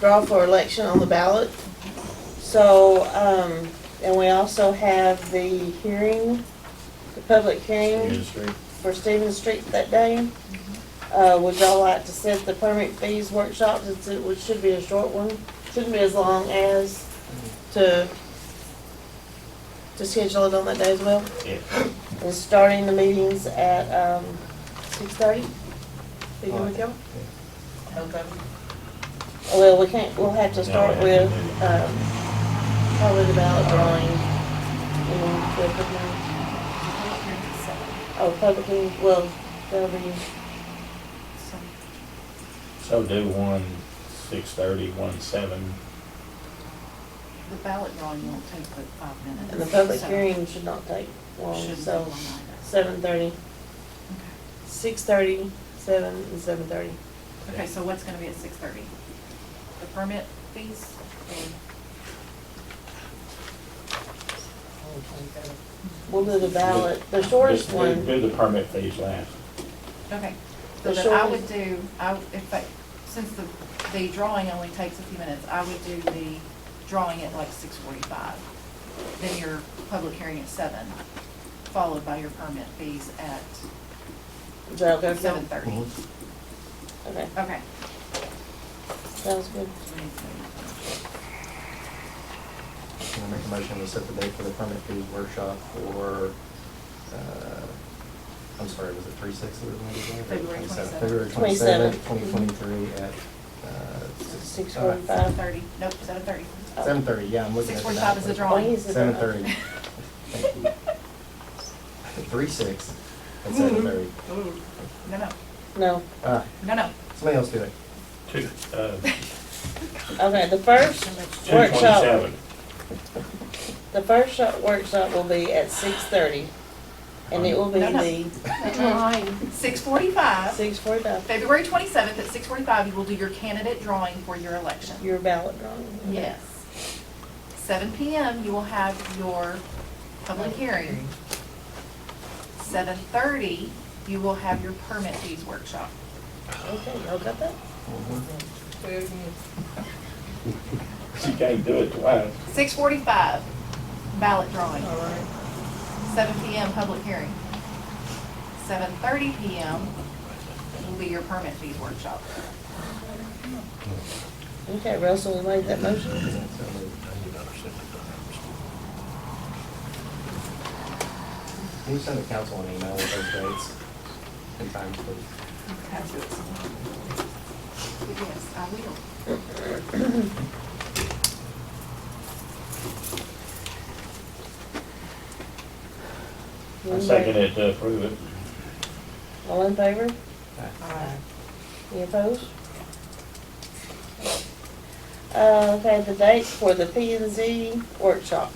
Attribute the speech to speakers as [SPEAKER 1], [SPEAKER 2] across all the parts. [SPEAKER 1] draw for election on the ballot. So, um, and we also have the hearing, the public hearing
[SPEAKER 2] Industry.
[SPEAKER 1] for Stevens Street that day. Uh, would y'all like to set the permit fees workshop, since it would- should be a short one, shouldn't be as long as to, to schedule it on that day as well?
[SPEAKER 2] Yeah.
[SPEAKER 1] And starting the meetings at, um, six thirty? Be good with y'all? Okay. Well, we can't, we'll have to start
[SPEAKER 2] No, we
[SPEAKER 1] with,
[SPEAKER 2] have to do it.
[SPEAKER 1] um, probably the ballot drawing. and then the public hearing. Oh, public hearing, well, that'll be,
[SPEAKER 2] So do one six thirty, one seven.
[SPEAKER 3] The ballot drawing won't take but five minutes.
[SPEAKER 1] and the public
[SPEAKER 3] so
[SPEAKER 1] hearing should not take long,
[SPEAKER 3] shouldn't be long
[SPEAKER 1] so
[SPEAKER 3] either.
[SPEAKER 1] seven thirty,
[SPEAKER 3] Okay.
[SPEAKER 1] six thirty, seven, and seven thirty.
[SPEAKER 3] Okay, so what's gonna be at six thirty? The permit fees?
[SPEAKER 1] We'll do the ballot, the shortest
[SPEAKER 2] Do-
[SPEAKER 1] one.
[SPEAKER 2] Do the permit fees last.
[SPEAKER 3] Okay, so
[SPEAKER 1] The
[SPEAKER 3] then I
[SPEAKER 1] short-
[SPEAKER 3] would do, I, would- if I, since the, the drawing only takes a few minutes, I would do the drawing at like six forty-five. Then your public hearing at seven, followed by your permit fees at
[SPEAKER 1] Is that okay?
[SPEAKER 3] seven thirty.
[SPEAKER 1] Okay,
[SPEAKER 3] Okay.
[SPEAKER 1] sounds good.
[SPEAKER 4] I make a motion to set the date for the permit fees workshop for, uh, I'm sorry, was it three six that we were going to do?
[SPEAKER 3] February 27th.
[SPEAKER 4] February
[SPEAKER 1] 27th.
[SPEAKER 4] twenty-seventh, twenty twenty-three at, uh.
[SPEAKER 1] Six forty-five.
[SPEAKER 3] Seven thirty, nope, seven thirty.
[SPEAKER 4] Seven thirty, yeah, I'm looking
[SPEAKER 3] Six
[SPEAKER 4] at the
[SPEAKER 3] forty-five is the
[SPEAKER 1] Why
[SPEAKER 3] drawing.
[SPEAKER 1] is it-
[SPEAKER 4] Seven thirty. Thank you. Three six at seven thirty.
[SPEAKER 3] No, no,
[SPEAKER 1] No,
[SPEAKER 4] Ah,
[SPEAKER 3] no, no.
[SPEAKER 4] somebody else do it.
[SPEAKER 2] Two, uh,
[SPEAKER 1] okay, the first
[SPEAKER 2] two
[SPEAKER 1] workshop,
[SPEAKER 2] twenty-seven.
[SPEAKER 1] the first shop- workshop will be at six thirty, and it will be
[SPEAKER 3] No, no.
[SPEAKER 1] the
[SPEAKER 3] Six forty-five,
[SPEAKER 1] six forty-five,
[SPEAKER 3] February twenty-seventh at six forty-five, you will do your candidate drawing for your election.
[SPEAKER 1] your ballot drawing.
[SPEAKER 3] Yes. Seven PM, you will have your public hearing. Seven thirty, you will have your permit fees workshop.
[SPEAKER 1] Okay, y'all got that?
[SPEAKER 2] You can't do it twice.
[SPEAKER 3] Six forty-five, ballot drawing.
[SPEAKER 1] All right.
[SPEAKER 3] Seven PM, public hearing. Seven thirty PM will be your permit fees workshop.
[SPEAKER 1] Okay, Russell, we made that motion.
[SPEAKER 4] Can you send the council an email with those dates and times, please?
[SPEAKER 3] Yes, I will.
[SPEAKER 1] Mm-hmm.
[SPEAKER 2] I second it to approve it.
[SPEAKER 1] All in favor?
[SPEAKER 4] Uh,
[SPEAKER 1] Any opposed? Uh, okay, the dates for the P and Z workshop,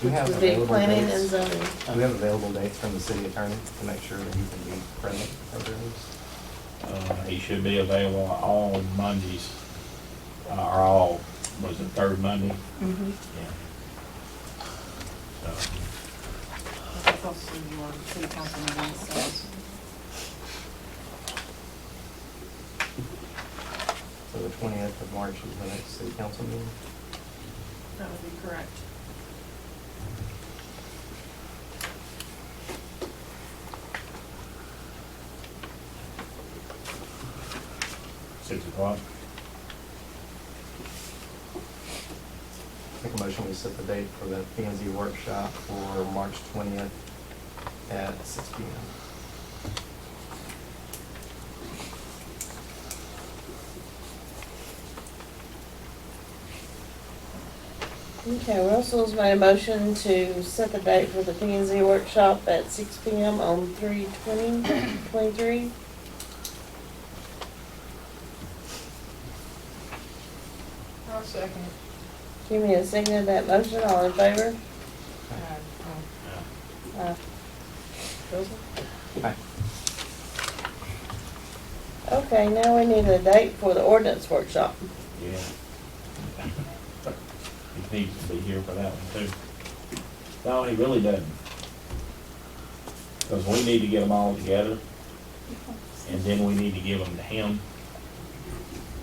[SPEAKER 4] Do you have
[SPEAKER 1] would be
[SPEAKER 4] available
[SPEAKER 1] planning and
[SPEAKER 4] dates?
[SPEAKER 1] zoning.
[SPEAKER 4] Do we have available dates from the city attorney to make sure that he can be present at those?
[SPEAKER 2] Uh, he should be available all Mondays, uh, or all, was it third Monday? Mm-hmm. So,
[SPEAKER 3] That's also your city council meeting, so.
[SPEAKER 4] So the twentieth of March is the next city council meeting?
[SPEAKER 3] That would be correct.
[SPEAKER 2] six o'clock.
[SPEAKER 4] Make a motion, we set the date for the P and Z workshop for March twentieth at six P M.
[SPEAKER 1] Okay, Russell's made a motion to set the date for the P and Z workshop at six P M on three twenty, twenty-three.
[SPEAKER 5] I'll second.
[SPEAKER 1] Jimmy has seconded that motion, all in favor? Aye. Russell?
[SPEAKER 4] Aye.
[SPEAKER 1] Okay, now we need a date for the ordinance workshop.
[SPEAKER 2] Yeah. He needs to be here for that one too. No, he really doesn't. Because we need to get them all together, and then we need to give them to him